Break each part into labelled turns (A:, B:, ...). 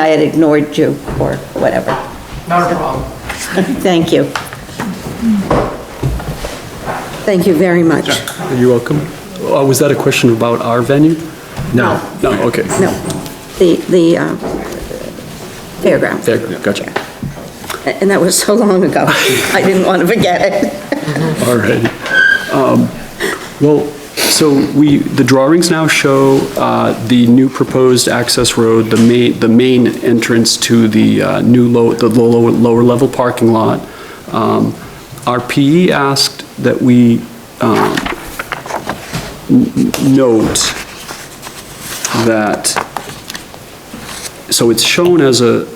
A: I had ignored you or whatever.
B: Not a problem.
A: Thank you. Thank you very much.
C: You're welcome. Uh, Was that a question about our venue? No, no, okay.
A: No, the, the uh, fairground.
C: There, gotcha.
A: And that was so long ago, I didn't want to forget it.
C: All right. Um, Well, so we, the drawings now show uh, the new proposed access road, the main, the main entrance to the uh, new low, the lower, lower level parking lot. Um, Our PE asked that we um, n- n- note that so it's shown as a,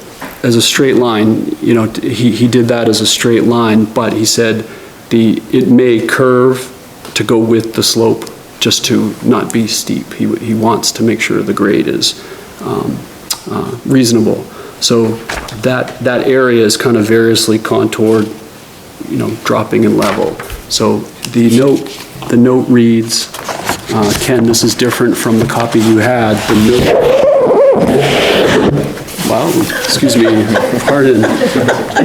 C: as a straight line, you know, he, he did that as a straight line, but he said the, it may curve to go with the slope, just to not be steep. He, w- he wants to make sure the grade is um, uh, reasonable. So that, that area is kind of variously contoured, you know, dropping in level. So the note, the note reads, uh, Ken, this is different from the copy you had. The note Wow, excuse me, pardon.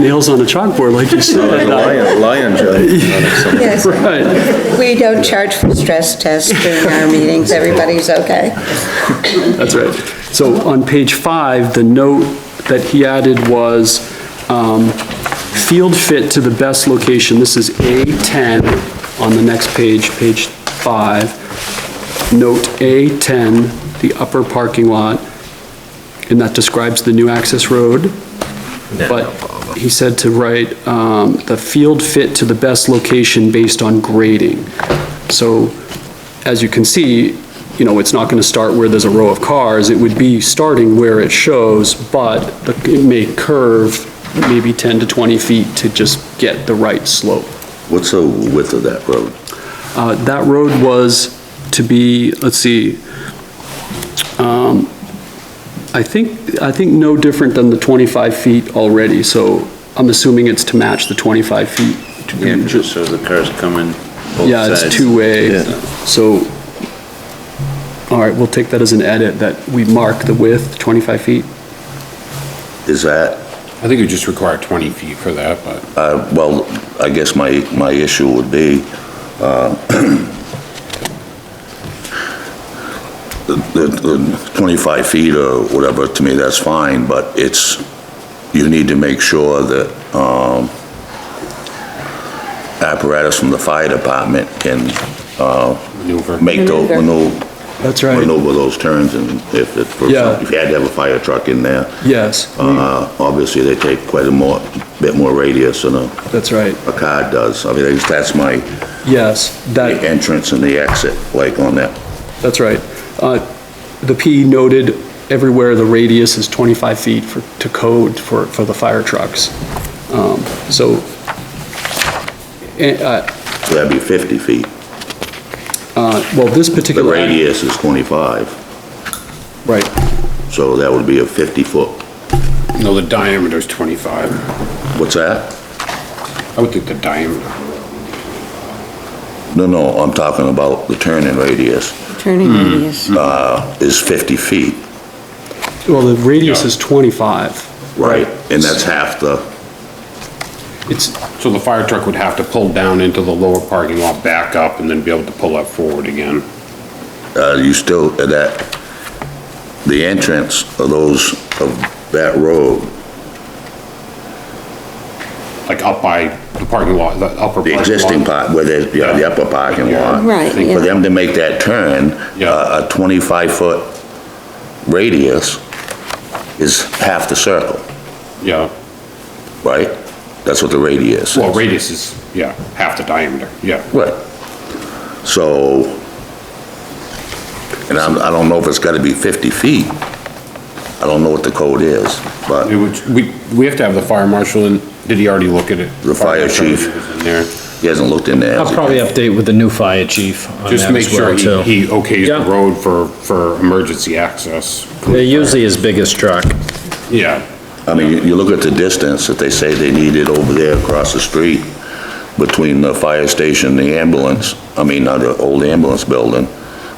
C: Nails on a chalkboard like you said.
D: Lion, lion jelly.
A: Yes,
C: Right,
A: we don't charge for stress tests during our meetings, everybody's okay.
C: that's right. So on page five, the note that he added was, um, field fit to the best location. This is A10 on the next page, page five. Note A10, the upper parking lot, and that describes the new access road. But he said to write, um, the field fit to the best location based on grading. So, as you can see, you know, it's not gonna start where there's a row of cars, it would be starting where it shows, but the- it may curve maybe 10 to 20 feet to just get the right slope.
D: What's the width of that road?
C: Uh, That road was to be, let's see, um, I think, I think no different than the 25 feet already, so I'm assuming it's to match the 25 feet.
E: Yeah, 'cause it shows the cars coming both
C: Yeah, it's
E: sides.
C: two-way,
D: Yeah.
C: so, all right, we'll take that as an edit, that we mark the width, 25 feet.
D: Is that,
F: I think it would just require 20 feet for that, but
D: uh, well, I guess my, my issue would be, uh, the, the- the 25 feet or whatever, to me, that's fine, but it's, you need to make sure that, um, apparatus from the fire department can, uh,
F: maneuver.
D: make those,
A: Maneuver.
D: maneuver,
C: That's
D: maneuver those turns and if it, for
C: Yeah.
D: example, if you had to have a fire truck in there,
C: Yes,
D: Uh, Obviously, they take quite a more, bit more radius than a,
C: that's right,
D: a car does. I mean, that's- that's my
C: yes, that.
D: entrance and the exit, like on that.
C: That's right. Uh, The P noted everywhere the radius is 25 feet for, to code for, for the fire trucks. Um, So, eh, uh,
D: So that'd be 50 feet.
C: uh, well, this
D: The
C: particular.
D: radius is 25,
C: Right,
D: so that would be a 50-foot.
F: No, the diameter is 25.
D: What's that?
F: I would think the diameter.
D: No, no, I'm talking about the turning radius
A: Turning radius.
D: uh, is 50 feet,
C: well, the radius is 25.
D: right? And that's half the,
C: It's,
F: So the fire truck would have to pull down into the lower parking lot, back up, and then be able to pull up forward again.
D: uh, you still, that, the entrance of those, of that road,
F: Like up by the parking lot, the upper parking
D: the
F: lot.
D: existing part, where there's, yeah, the upper parking lot.
A: Right,
F: Think
D: for
A: yeah.
D: them to make that turn, uh,
F: Yeah.
D: a 25-foot radius is half the circle,
F: Yeah,
D: right? That's what the radius is.
F: well, radius is, yeah, half the diameter, yeah.
D: Right. So, and I'm, I don't know if it's gotta be 50 feet. I don't know what the code is,
F: It
D: but,
F: would, we, we have to have the fire marshal in, did he already look at it?
D: The fire chief.
F: He was in there.
D: he hasn't looked in there.
G: I'll probably update with the new fire chief on
F: Just
G: that
F: make
G: as
F: sure
G: well, too.
F: he he okays
G: Yeah.
F: the road for, for emergency access.
G: They're usually his biggest truck.
F: Yeah,
D: I mean, you, you look at the distance that they say they needed over there across the street between the fire station and the ambulance, I mean, not the old ambulance building,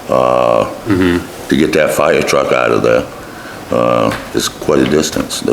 D: uh, to get that fire truck out of there. uh, is quite a distance. The